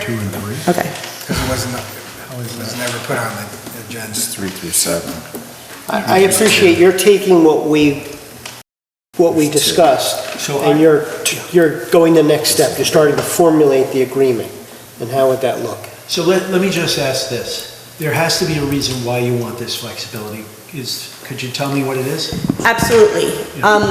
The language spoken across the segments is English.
Two and three? Okay. Because it wasn't, it was never put on the agenda. Three through seven. I I appreciate you're taking what we, what we discussed, So and I- you're, you're going the next step, you're starting to formulate the agreement, and how would that look? So let, let me just ask this. There has to be a reason why you want this flexibility. Is, could you tell me what it is? Absolutely. Um,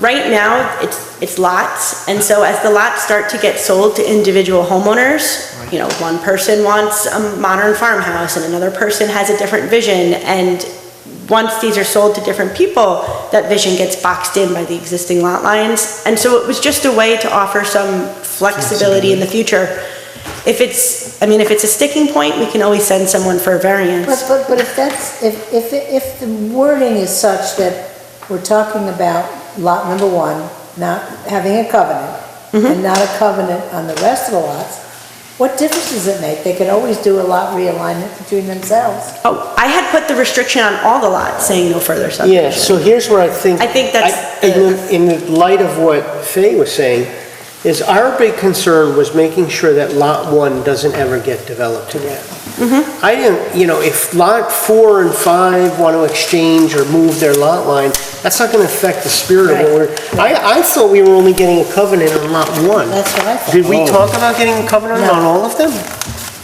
right now, it's, it's lots, and so as the lots start to get sold to individual homeowners, you know, one person wants a modern farmhouse and another person has a different vision, and once these are sold to different people, that vision gets boxed in by the existing lot lines. And so it was just a way to offer some flexibility in the future. If it's, I mean, if it's a sticking point, we can always send someone for a But, variance. but, but if that's, if, if, if the wording is such that we're talking about lot number one, not having a covenant, and not a covenant on the rest of the lots, what difference does it make? They could always do a lot realignment between themselves. Oh, I had put the restriction on all the lots, saying no further subdivision. Yeah, so here's where I think. I think that's I- In the in the light of what Faye was saying, is our big concern was making sure that Lot 1 doesn't ever get developed again. Mm-hmm. I didn't, you know, if Lot 4 and 5 want to exchange or move their lot line, that's not going to affect the spirit of what we're, I, I thought we were only getting a covenant on Lot 1. That's what I thought. Did we talk about getting a covenant No. on all of them?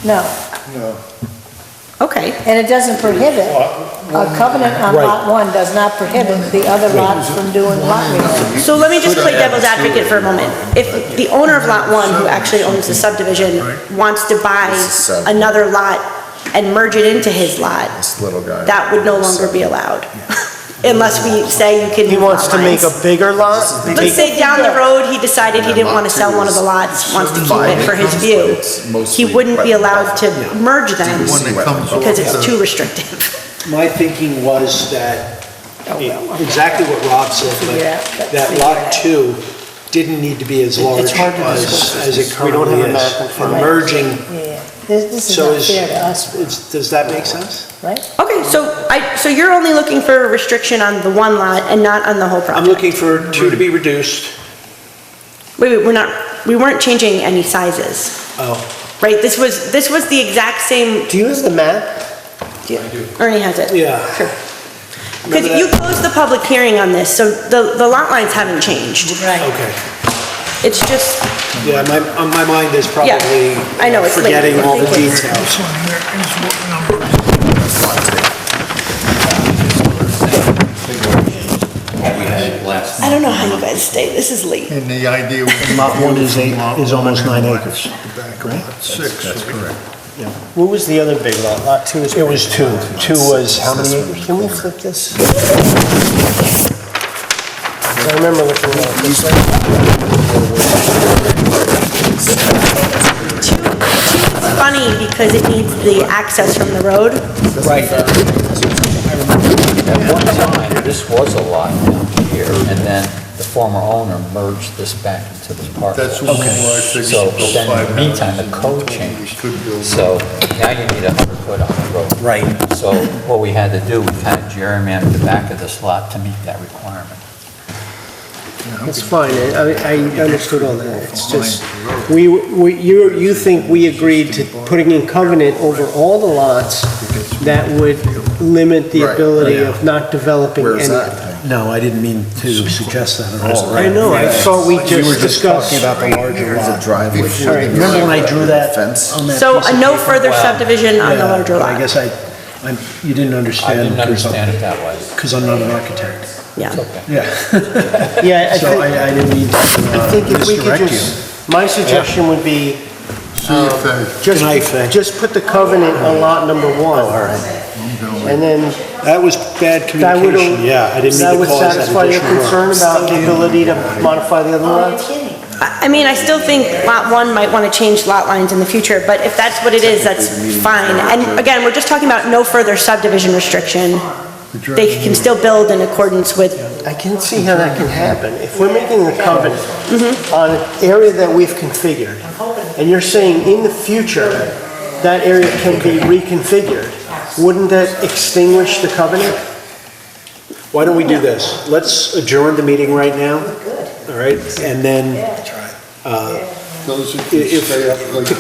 No, Okay. and it doesn't prohibit, a covenant on lot one does not prohibit the other lots from doing lot realignment. So let me just play devil's advocate for a moment. If the owner of Lot 1, who actually owns the subdivision, wants to buy another lot and merge it into his lot, This little guy. that would no longer be allowed. Unless we say you can He move wants lot to make lines. a bigger lot? Let's say down the road, he decided he didn't want to sell one of the lots, wants to keep it for his view. He wouldn't be allowed to merge them because it's too restrictive. My thinking was that, exactly what Rob said, Yeah, but that's that lot two didn't need to be as large hard to as, discuss. as it We don't have currently a map in is. front of us. Merging, Yeah, this, this is so not is, fair to us, is- does that make sense? right? Okay, so I, so you're only looking for a restriction on the one lot and not on the whole project? I'm looking for two to be reduced. Wait, wait, we're not, we weren't changing any sizes, Oh, right? This was, this was the exact same, Do you have the map? Ernie has it. Yeah. Sure. Because Remember that? you closed the public hearing on this, so the, the lot lines haven't changed. Right. okay. It's just, Yeah, my, on my mind is probably I know, it's late. forgetting all the Thank you. details. I don't know how you guys stay, this is late. And the idea was. Lot one is eight- is almost nine acres. Back on lot six. That's correct. What was the other big lot? Lot two is. It was two. Two was how many acres? Can we flip this? I remember looking at this. Funny, because it needs the access from the road. At one time, this was a lot down here, and then the former owner merged this back into this parcel. That's what we like, they just So built then, five in the meantime, houses the and code told them we changed. could build So now you need a hundred foot on the road. Right. So what we had to do, we kind of gerrymandered the back of this lot to meet that requirement. It's fine, I, I understood all that, it's just, we, we, you, you think we agreed to putting in covenant over all the lots that would limit the Right, ability of not developing Where's any. that? No, I didn't mean to suggest that at all. I know, I thought we just discussed. There's a driveway. All right, Remember when I drew that? Fence. on that So piece of a no paper? further Wow. subdivision on the Yeah, larger but lot. I guess I, I'm, you didn't I understand. didn't understand it that way. Because I'm not an architect. Yeah. Yeah. Yeah, I So think, I, I didn't mean to I think uh, if we could misdirect you. just, my suggestion would be, See if they, Just, Good night, Fay. just put the covenant on lot number one. All right. And then That was bad that would, communication, yeah. I didn't that mean to would cause that satisfy your additional concern work. about the ability to modify the other Oh, you're lots? kidding. I I mean, I still think Lot 1 might want to change lot lines in the future, but if that's what it is, that's fine. And again, we're just talking about no further subdivision restriction. They can still build in accordance with, I can see how that can happen. If we're making a covenant on an area that we've configured, and you're saying in the future, that area can be reconfigured, wouldn't that extinguish the covenant? Why don't we do this? Let's adjourn the meeting right now, all right? And then uh, those who If- can stay up late.